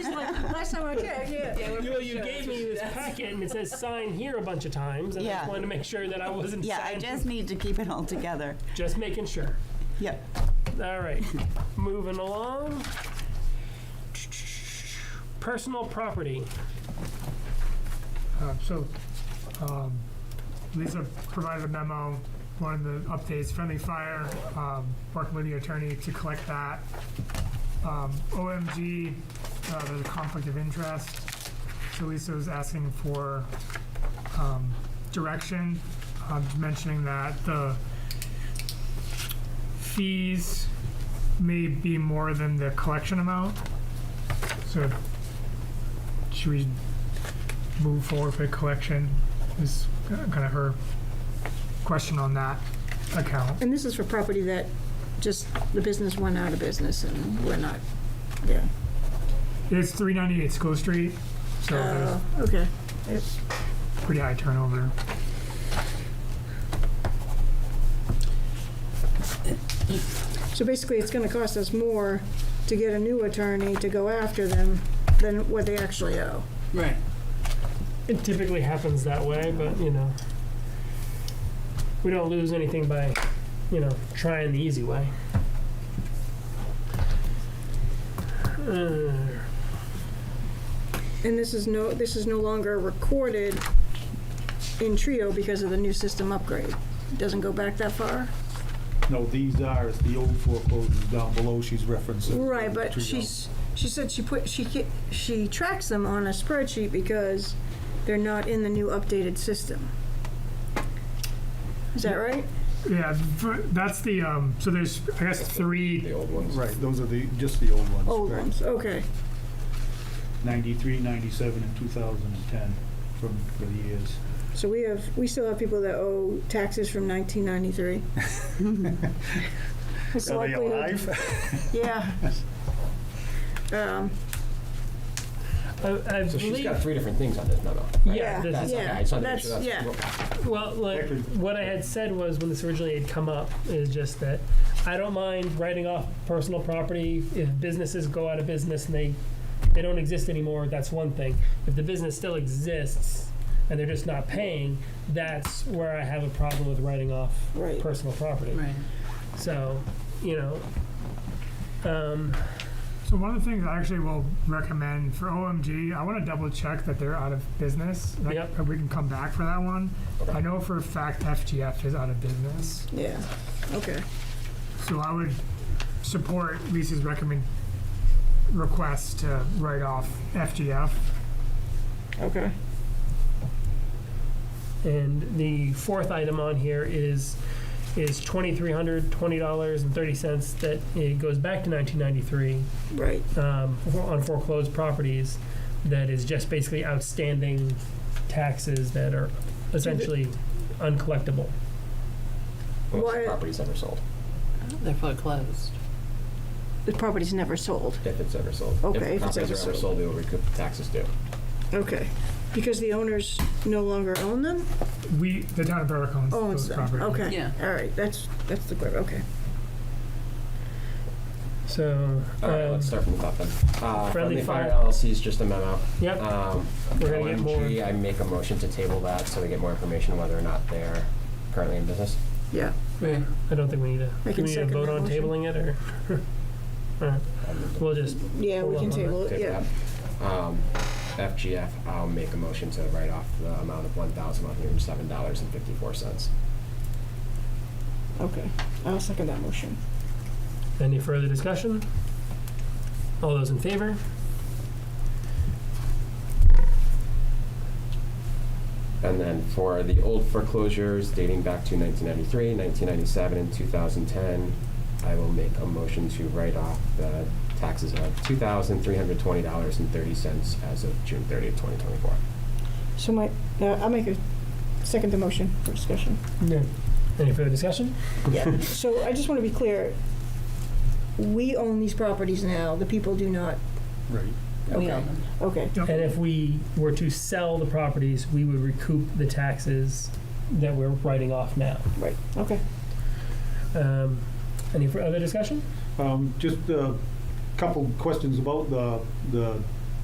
last time I checked, yeah. yeah You, you gave me this packet and it says sign here a bunch of times, and I Yeah. just wanted to make sure that I wasn't Yeah, I signing. just need to keep it all together. Just making sure. Yep. All right, moving along. Personal property. Uh, So, um, Lisa provided a memo, one of the updates, friendly fire, um, working with the attorney to collect that. Um, OMG, uh, there's a conflict of interest, so Lisa was asking for um, direction, um, mentioning that the fees may be more than the collection amount. So should we move forward with collection is kind of her question on that account. And this is for property that just, the business went out of business and we're not, yeah. It's 398 School Street, so there's Oh, okay. pretty high turnover. So basically, it's gonna cost us more to get a new attorney to go after them than what they actually owe. Right. It typically happens that way, but you know, we don't lose anything by, you know, trying the easy way. Uh, And this is no, this is no longer recorded in Trio because of the new system upgrade. It Doesn't go back that far. No, these are, it's the old foreclosures down below she's referencing. Right, but Trio. she's, she said she put, she, ca- she tracks them on a spreadsheet because they're not in the new updated system. Is that right? Yeah, for- that's the, um, so there's, I guess, three, Right, those are the, just the old ones. Old correct. ones, Oh, okay. 93, 97, and 2010 from, for the years. So we have, we still have people that owe taxes from 1993. It's Are they likely- alive? Yeah. Um, I, I So she's believe, got three different things on this memo. right? yeah, Yeah, this is That's yeah. okay. I just wanted to make sure that's- that's what- Well, like, Actually- what I had said was when this originally had come up is just that I don't mind writing off personal property if businesses go out of business and they they don't exist anymore. That's one thing. If the business still exists and they're just not paying, that's where I have a problem with writing off Right. personal property. Right. So, you know, um, so one of the things I actually will recommend for OMG, I want to double check that they're out of business. That- Yep. that We can come back for that one. I know for a fact FGF is out of business, Yeah, okay. so I would support Lisa's recommend, request to write off FGF. Okay. and the fourth item on here is is twenty three hundred twenty dollars and thirty cents that it goes back to nineteen ninety three. Right. um, for- on foreclosed properties that is just basically outstanding taxes that are essentially uncollectible. Unless the Why- property's ever sold, They're foreclosed. The property's never sold. if it's ever sold. Okay, If if it's properties ever are ever sold. sold, we will recoup the taxes due. Okay. Because the owners no longer own them? We, the town of Berwick owns those Owns them, properties. Oh, okay. Yeah. All right, that's, that's the, que- okay. So, All right, um, let's start from the top then. Uh, Friendly Friendly Fire Fire. LLC is just a memo. yep, Um, We're gonna get more- OMG, I make a motion to table that so we get more information whether or not they're currently in business. Yeah. Right. I don't think we need I to, do we can need to second vote that on motion. tabling it, or? All right, We'll just, Yeah, we Hold on, can table it, Table yeah. that. Um, FGF, I'll make a motion to write off the amount of one thousand one hundred and seven dollars and fifty-four cents. Okay. I'll second that motion. any further discussion? All those in favor? And then for the old foreclosures dating back to 1993, 1997, and 2010, I will make a motion to write off the taxes of $2,320.30 as of June 30th, 2024. So my, now I'll make a second the motion for discussion. No. Any further discussion? Yeah, so I just want to be clear. We own these properties now, the people do not. Right. We Okay. own them. Okay, And if we were to sell the properties, we would recoup the taxes that we're writing off now. right, okay. Um, any further discussion? Um, Just a couple questions about the, the